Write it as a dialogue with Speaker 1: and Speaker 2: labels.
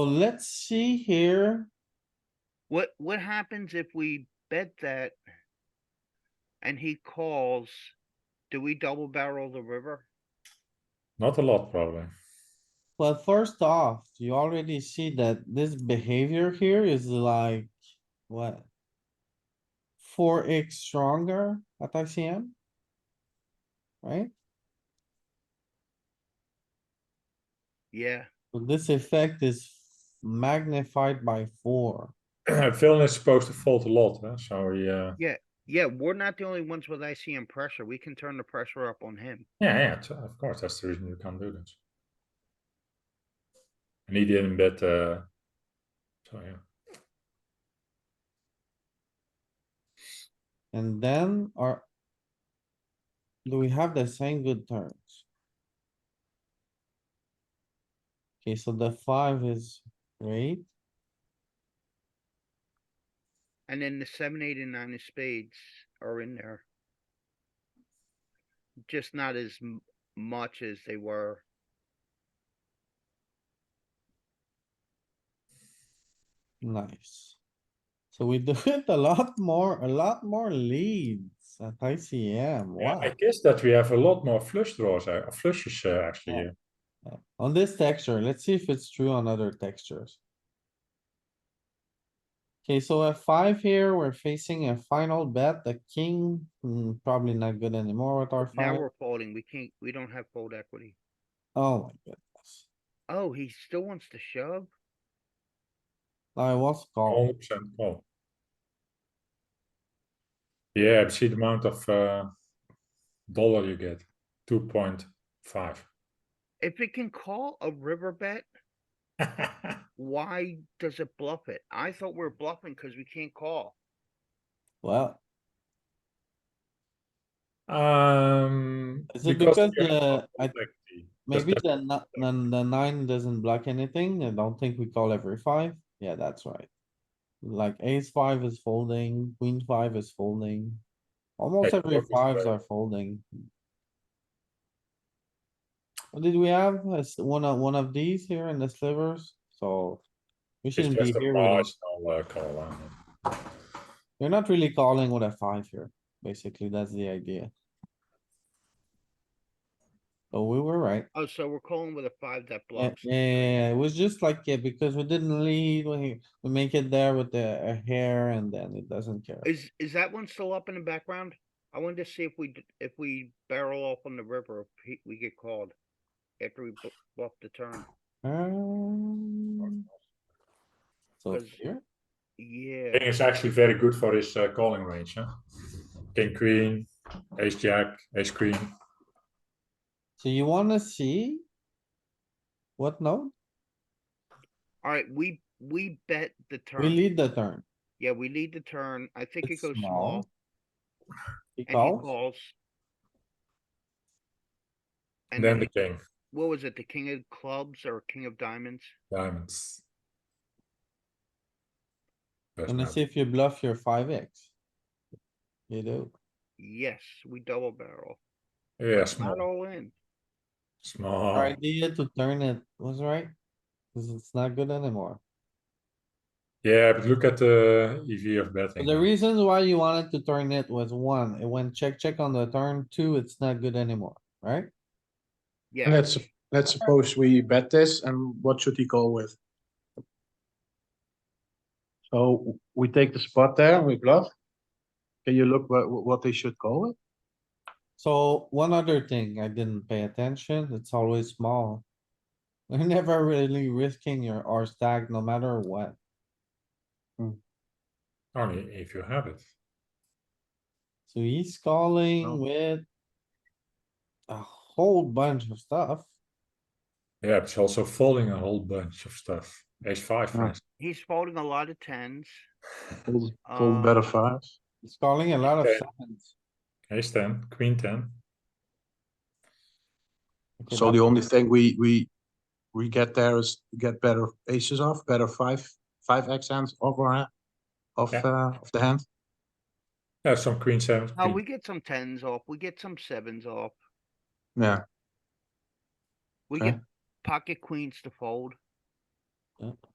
Speaker 1: So let's see here.
Speaker 2: What, what happens if we bet that? And he calls, do we double barrel the river?
Speaker 3: Not a lot, probably.
Speaker 1: Well, first off, you already see that this behavior here is like, what? Four X stronger at ICM? Right?
Speaker 2: Yeah,
Speaker 1: So This effect is magnified by four.
Speaker 3: Villain is supposed to fold a lot, huh? so he, uh,
Speaker 2: yeah, we're not the only ones with ICM pressure. We can turn the pressure up on him.
Speaker 3: yeah, yeah, t- of course, that's the reason you can't do this. And he didn't bet, uh, so yeah.
Speaker 1: And then are. Do we have the same good turns? Okay, so the five is great.
Speaker 2: And then the seven, eight, and nine of spades are in there. Just not as m- much as they were.
Speaker 1: Nice. So we do it a lot more, a lot more leads at ICM,
Speaker 3: Yeah,
Speaker 1: wow.
Speaker 3: I guess that we have a lot more flush draws, uh, flushes uh, actually
Speaker 1: Yeah.
Speaker 3: here.
Speaker 1: Uh, On this texture, let's see if it's true on other textures. Okay, so a five here, we're facing a final bet, the king, hmm, probably not good anymore with our
Speaker 2: Now
Speaker 1: five.
Speaker 2: we're folding. We can't, we don't have fold equity.
Speaker 1: Oh my goodness,
Speaker 2: Oh, he still wants to shove?
Speaker 1: I was called,
Speaker 3: 100% call. Yeah, see the amount of uh, dollar you get, 2.5.
Speaker 2: If it can call a river bet, why does it bluff it? I thought we were bluffing because we can't call.
Speaker 1: well,
Speaker 3: um,
Speaker 1: is it
Speaker 3: because
Speaker 1: because
Speaker 3: you have
Speaker 1: the, I,
Speaker 3: complexity. That's
Speaker 1: maybe the, ni- the, the nine doesn't block anything, I don't think we call every five, yeah, that's right. Like ace five is folding, queen five is folding, almost
Speaker 3: Hey,
Speaker 1: every
Speaker 3: Rook is
Speaker 1: fives
Speaker 3: great.
Speaker 1: are folding. What Did we have Uh, s- one of, one of these here in the slivers? So we
Speaker 3: It's
Speaker 1: shouldn't be
Speaker 3: just a
Speaker 1: here, with a-
Speaker 3: marginal uh, call line.
Speaker 1: you're not really calling with a five here, basically, that's the idea. Oh, we were right.
Speaker 2: Oh, so we're calling with a five that
Speaker 1: Yeah,
Speaker 2: bluffs.
Speaker 1: yeah, yeah, yeah, it was just like, yeah, because we didn't lead, we, we make it there with the a hair and then it doesn't care.
Speaker 2: Is, is that one still up in the background? I wanted to see if we, d- if we barrel off on the river, if he- we get called. After we bl- bluff the turn.
Speaker 1: Um, So
Speaker 2: Cause-
Speaker 1: here,
Speaker 2: Yeah,
Speaker 3: King is actually very good for his uh, calling range. Huh? King Queen, Ace Jack, Ace Queen.
Speaker 1: so you wanna see? What note?
Speaker 2: alright, we, we bet the
Speaker 1: We
Speaker 2: turn.
Speaker 1: lead the turn.
Speaker 2: Yeah, we lead the turn. I think it
Speaker 1: It's
Speaker 2: goes
Speaker 1: small.
Speaker 2: small
Speaker 1: He
Speaker 2: and he
Speaker 1: calls,
Speaker 2: calls. And
Speaker 3: And then the
Speaker 2: then,
Speaker 3: King,
Speaker 2: what was it? The king of clubs or king of diamonds?
Speaker 3: Diamonds. Best
Speaker 1: gonna
Speaker 3: man.
Speaker 1: see if you bluff your five X. You do.
Speaker 2: Yes, we double barrel.
Speaker 3: Yeah,
Speaker 2: Not
Speaker 3: small.
Speaker 2: all in.
Speaker 3: Small.
Speaker 1: Our idea to turn it was right. Cause it's not good anymore.
Speaker 3: Yeah, but look at the EV of betting.
Speaker 1: The
Speaker 3: huh?
Speaker 1: reasons why you wanted to turn it was one, it went check, check on the turn, two, it's not good anymore, right?
Speaker 4: And
Speaker 2: Yeah,
Speaker 4: let's, let's suppose we bet this, and what should he call with? So we take the spot there and we bluff. Can you look what, what they should call it?
Speaker 1: So one other thing, I didn't pay attention, it's always small. You're never really risking your R stack, no matter what.
Speaker 3: Only if you have it.
Speaker 1: So he's calling
Speaker 4: No.
Speaker 1: with. A whole bunch of stuff.
Speaker 3: Yeah, it's also folding a whole bunch of stuff. Ace five, for
Speaker 4: Yeah.
Speaker 3: instance.
Speaker 2: he's folding a lot of tens.
Speaker 4: Fold,
Speaker 2: Uh,
Speaker 4: fold better fives.
Speaker 1: He's calling a lot of
Speaker 3: Okay.
Speaker 1: sevens.
Speaker 3: ace ten, queen ten.
Speaker 1: Okay,
Speaker 4: So
Speaker 1: that's-
Speaker 4: the only thing we, we, we get there is get better aces off, better five, five X hands off our, hand- off,
Speaker 3: Yeah.
Speaker 4: uh, of the hand.
Speaker 3: Yeah, some queen seven.
Speaker 2: Oh,
Speaker 3: queen-
Speaker 2: we get some tens off. We get some sevens off.
Speaker 4: Yeah,
Speaker 2: We
Speaker 4: Okay.
Speaker 2: get pocket queens to fold.
Speaker 1: Yeah.